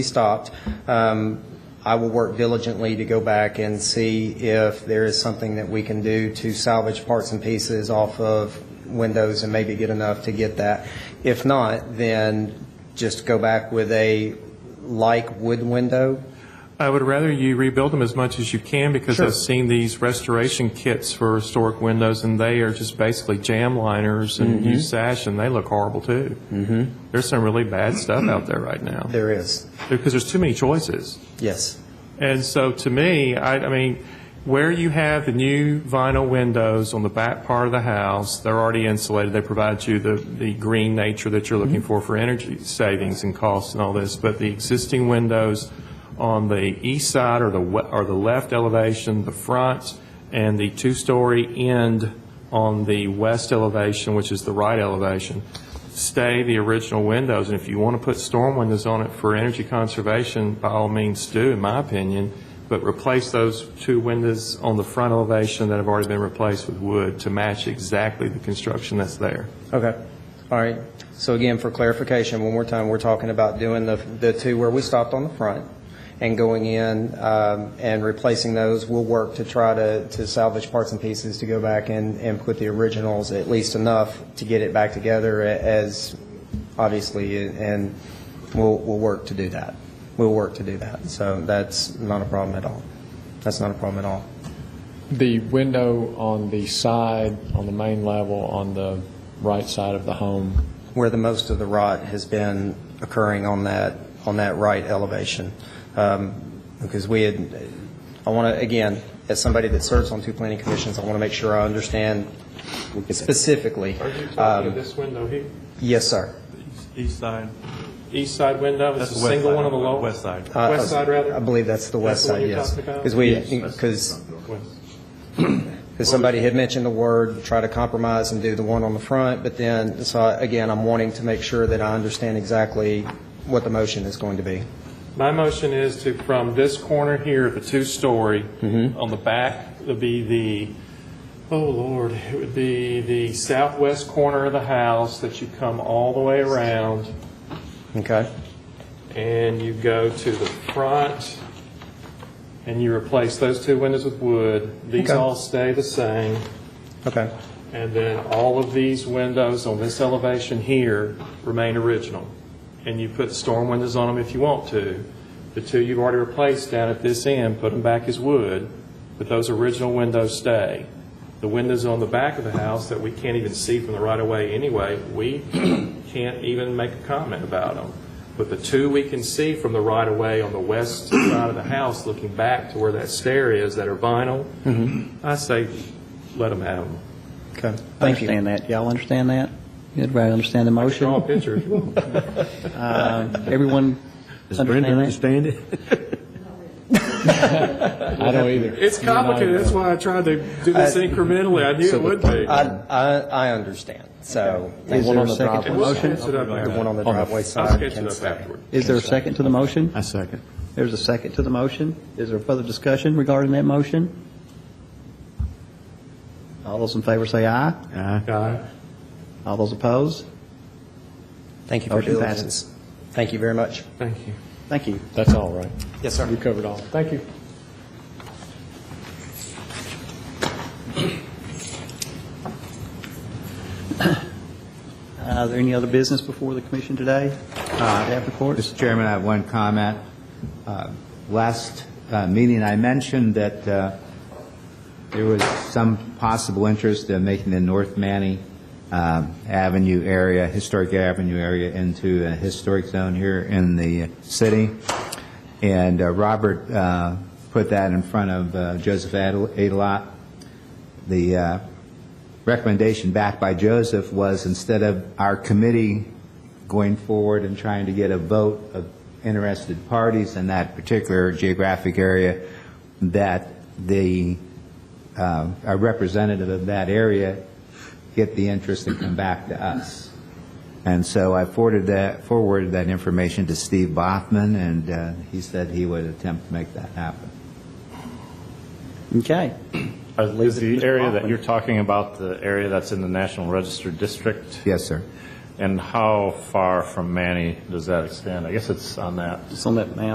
stopped. Um, I will work diligently to go back and see if there is something that we can do to salvage parts and pieces off of windows and maybe get enough to get that. If not, then just go back with a like wood window. I would rather you rebuild them as much as you can because Sure. I've seen these restoration kits for historic windows and they are just basically jam liners and Mm-hmm. use sash and they look horrible too. Mm-hmm. There's some really bad stuff out there right now There is, because there's too many choices. yes. And so to me, I, I mean, where you have the new vinyl windows on the back part of the house, they're already insulated. They provide you the, the green nature that you're looking for for energy savings and costs and all this. But the existing windows on the east side or the, we- or the left elevation, the front, and the two-story end on the west elevation, which is the right elevation, stay the original windows, and if you want to put storm windows on it for energy conservation, by all means do, in my opinion, but replace those two windows on the front elevation that have already been replaced with wood to match exactly the construction that's there. Okay, all right. So again, for clarification, one more time, we're talking about doing the, the two where we stopped on the front and going in um, and replacing those. We'll work to try to, to salvage parts and pieces to go back and, and put the originals, at least enough to get it back together a- as, obviously, and we'll, we'll work to do that. We'll work to do that. So that's not a problem at all. That's not a problem at all. The window on the side, on the main level, on the right side of the home, where the most of the rot has been occurring on that, on that right elevation. Um, Because we had, I want to, again, as somebody that serves on two planning commissions, I want to make sure I understand specifically. Um, this window here? Yes, sir. East side. East side window, That's it's a the west single side, one on the lower? West side. Uh, West side, rather? I believe that's the west side, That's the one you're yes. talking about? Because we, because Because somebody had mentioned the word, try to compromise and do the one on the front, but then, so I- again, I'm wanting to make sure that I understand exactly what the motion is going to be. My motion is to, from this corner here, the two-story, on the back would be the, oh Lord, it would be the southwest corner of the house that you come all the way around Okay? and you go to the front and you replace those two windows with wood. These Okay. all stay the same. Okay. And then all of these windows on this elevation here remain original. And you put storm windows on them if you want to. The two you've already replaced down at this end, put them back as wood, but those original windows stay. The windows on the back of the house that we can't even see from the right-of-way anyway, we can't even make a comment about them. But the two we can see from the right-of-way on the west side of the house, looking back to where that stair is, that are vinyl, I say, let them have them. Okay. I Thank you. Understand that. Y'all understand that? Everybody understand the Draw Oh. a motion? picture if you want. Uh, Everyone understand that? it? I don't either. It's complicated, that's why I tried to do this incrementally, I knew it would be. I, I, I understand, so. Is there a second driveway- to the motion? Sketch it up The one after. on the On the- driveway side. I'll sketch can it up stay. afterward. Is there a second to the motion? I second. There's a second to the motion. Is there further discussion regarding that motion? All those in favor say aye. Aye. All those opposed? Thank you for Motion your passes. diligence. Thank you very much. Thank you. Thank you. That's all right. Yes, sir. We covered all. Thank you. Uh, Are there any other business before the commission today? Staff reports? Mr. Chairman, I have one comment. Uh, Last uh, meeting, I mentioned that uh, there was some possible interest in making the North Manny um, Avenue area, Historic Avenue area, into a historic zone here in the city. And uh, Robert uh, put that in front of uh, Joseph Adel- Adelot. The uh, recommendation backed by Joseph was instead of our committee going forward and trying to get a vote of interested parties in that particular geographic area, that the, uh, a representative of that area get the interest and come back to us. And so I forwarded that, forwarded that information to Steve Bothman, and uh, he said he would attempt to make that happen. Okay. Is the area that Hoffman? you're talking about the area that's in the National Register District? Yes, sir. And how far from Manny does that extend? I guess it's on that It's on that map.